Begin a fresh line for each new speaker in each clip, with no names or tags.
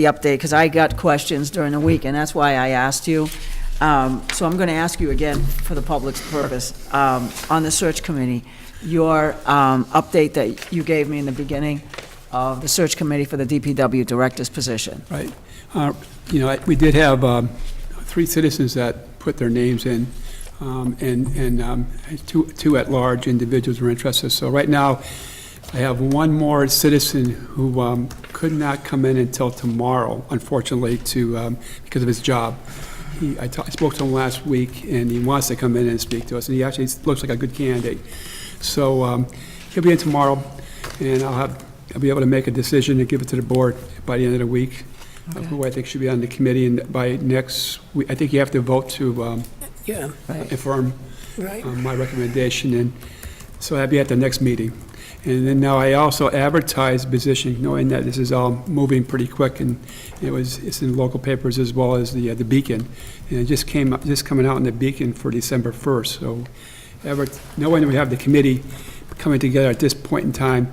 the update, because I got questions during the week, and that's why I asked you. Um, So I'm going to ask you again, for the public's purpose, um, on the search committee, your um, update that you gave me in the beginning of the search committee for the DPW director's position.
Right. Uh, You know, I- we did have um, three citizens that put their names in, um, and, and um, two two at-large individuals were interested. So right now, I have one more citizen who um, could not come in until tomorrow, unfortunately, to, um, because of his job. He- I ta- I spoke to him last week, and he wants to come in and speak to us, and he actually looks like a good candidate. So um, he'll be in tomorrow, and I'll have, I'll be able to make a decision and give it to the board by the end of the week, of who I think should be on the committee, and by next, we- I think you have to vote to um,
Yeah,
affirm
right.
on my recommendation, and so that'd be at the next meeting. And then now I also advertised position, knowing that this is all moving pretty quick, and it was, it's in local papers as well as the, uh, the Beacon. And it just came, up just coming out in the Beacon for December first, so ever, knowing we have the committee coming together at this point in time,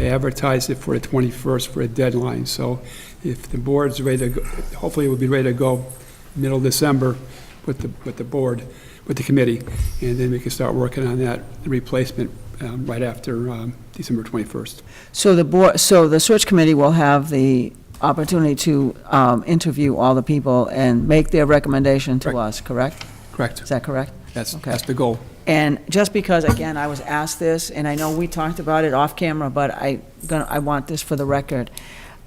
I advertised it for the twenty-first for a deadline, so if the board's ready to, go hopefully it will be ready to go middle of December with the, with the board, with the committee, and then we can start working on that replacement um, right after um, December 21st.
So the board, so the search committee will have the opportunity to um, interview all the people and make their recommendation to
Correct.
us, correct? Is
Correct?
that correct?
That's,
Okay.
that's the goal.
And just because, again, I was asked this, and I know we talked about it off camera, but I, gonna- I want this for the record.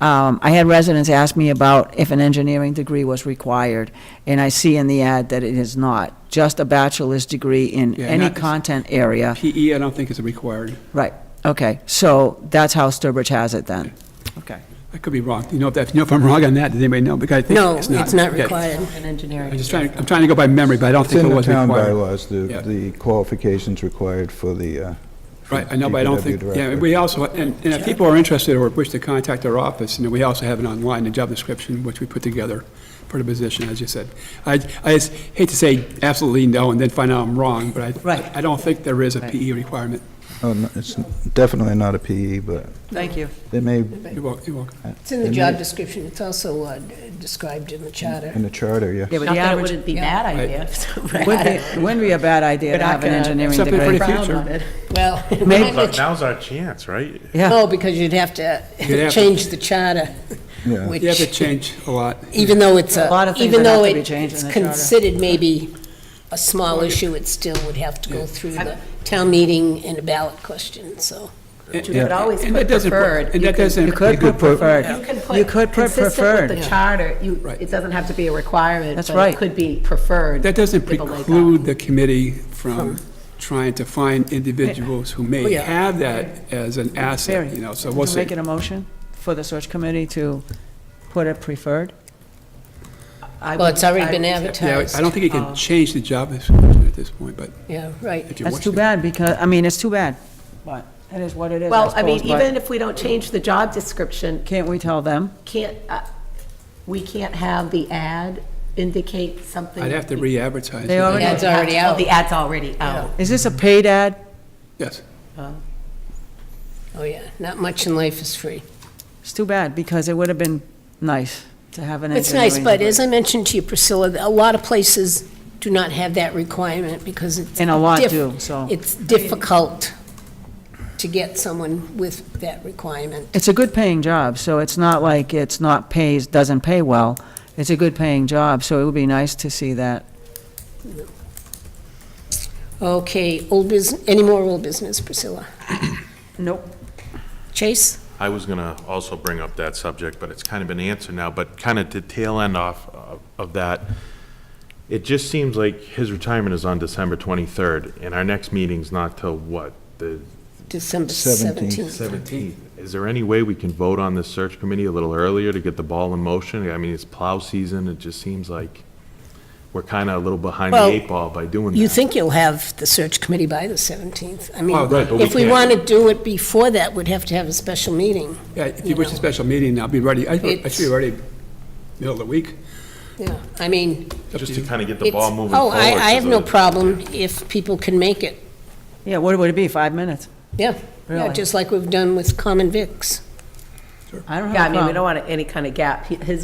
Um, I had residents ask me about if an engineering degree was required, and I see in the ad that it is not. Just a bachelor's degree in
Yeah,
any
not-
content area.
PE, E, I don't think is required.
Right, okay, so that's how Sturbridge has it then. Okay.
I could be wrong. You know, if, that- you know if I'm wrong on that, does anybody know? Because I think
No,
it's not.
it's not
Okay.
required.
An engineering.
I'm just trying, I'm trying to go by memory, but I don't
It's
think
in
it
the
was
town
required.
bylaws, the,
Yeah.
the qualifications required for the, uh. for
Right, I know, but I don't
DPW
think, yeah,
director.
we also, and and if people are interested or wish to contact our office, and we also have it online, the job description, which we put together for the position, as you said. I, I just hate to say absolutely no and then find out I'm wrong, but I.
Right.
I don't think there is a
Right.
PE requirement.
Oh, no, It's definitely not a PE, but
Thank you.
it may.
You're wel- you're welcome.
It's in the job description. It's also uh, described in the charter.
Mm-hmm.
In the charter, yeah.
Yeah, but
Not
the
that it
average,
wouldn't be a bad idea. if it's
wouldn't
bad.
be- wouldn't be a bad idea
We're
to
not
have an
gonna-
engineering
Something
degree.
pretty
Frown
future.
on it.
Well,
Maybe-
not the-
Now's our chance, right?
Yeah,
no, because you'd have to
You'd have to-
change the charter,
Yeah.
You have to
which,
change a lot.
even though it's
A lot of
a,
things
even
that have
though
to be
it-
changed in
it's
the charter.
considered maybe a small issue, it still would have to go through the town meeting and a ballot question, so.
But You could always
And that
put
doesn't-
preferred.
And
You
that
could-
doesn't.
you could put preferred.
You can
You
put
could put
consistent
preferred.
with the charter. You,
Right.
it doesn't have to be a requirement.
That's
but
right.
It could be preferred.
That doesn't
People wake up.
preclude the committee from trying to find individuals who may
yeah.
have that as an asset, you know, so we'll
Would you
see.
make it a motion for the search committee to put it preferred?
I
Well,
would-
it's already
I
been
would-
Yeah,
advertised.
I don't think you can change the job description at this point, but
Yeah, right.
if you
um, That's
wish
too
to.
bad, because, I mean, it's too bad, but it is what it is, I
Well, I mean,
suppose, but
even if we don't change the job description,
Can't we tell them?
can't, uh, we can't have the ad indicate something.
I'd have to re-advertise.
They
it.
already-
Ad's already
Oh,
out.
The ad's already out.
Is this a paid ad?
Yes,
Oh, yeah. Not much in life is free.
It's too bad, because it would have been nice to have an
It's
engineering.
nice, but
degree.
as I mentioned to you, Priscilla, a lot of places do not have that requirement because it's.
And a lot
diff-
do, so.
It's difficult to get someone with that requirement.
It's a good paying job, so it's not like it's not pays, doesn't pay well. It's a good paying job, so it would be nice to see that.
Okay, old business, any more old business, Priscilla?
Nope.
Chase?
I was going to also bring up that subject, but it's kind of been answered now, but kind of to tail end off of- of that, it just seems like his retirement is on December 23rd, and our next meeting's not till what, the
December
Seventeenth.
17th.
17th? Is there any way we can vote on this search committee a little earlier to get the ball in motion? I mean, it's plow season, it just seems like we're kind of a little behind the
Well,
eight ball by doing that.
You think you'll have the search committee by the 17th? I mean,
Oh, right,
but we
if we
can't.
want to do it before that, we'd have to have a special meeting.
yeah, if you wish a special meeting, I'll be ready, I I should be
It's-
ready middle of the week.
Yeah, I mean,
Up to
Just
you.
to kind of get the
it's.
ball moving
Oh,
forward.
I, I
'cause
have no
of-
problem if people can make it.
Yeah, what would it be, five minutes?
Yeah, yeah,
Really?
just like we've done with Common Vics.
I don't have a
Yeah, I mean, we
problem.
don't want any kind of gap. He- His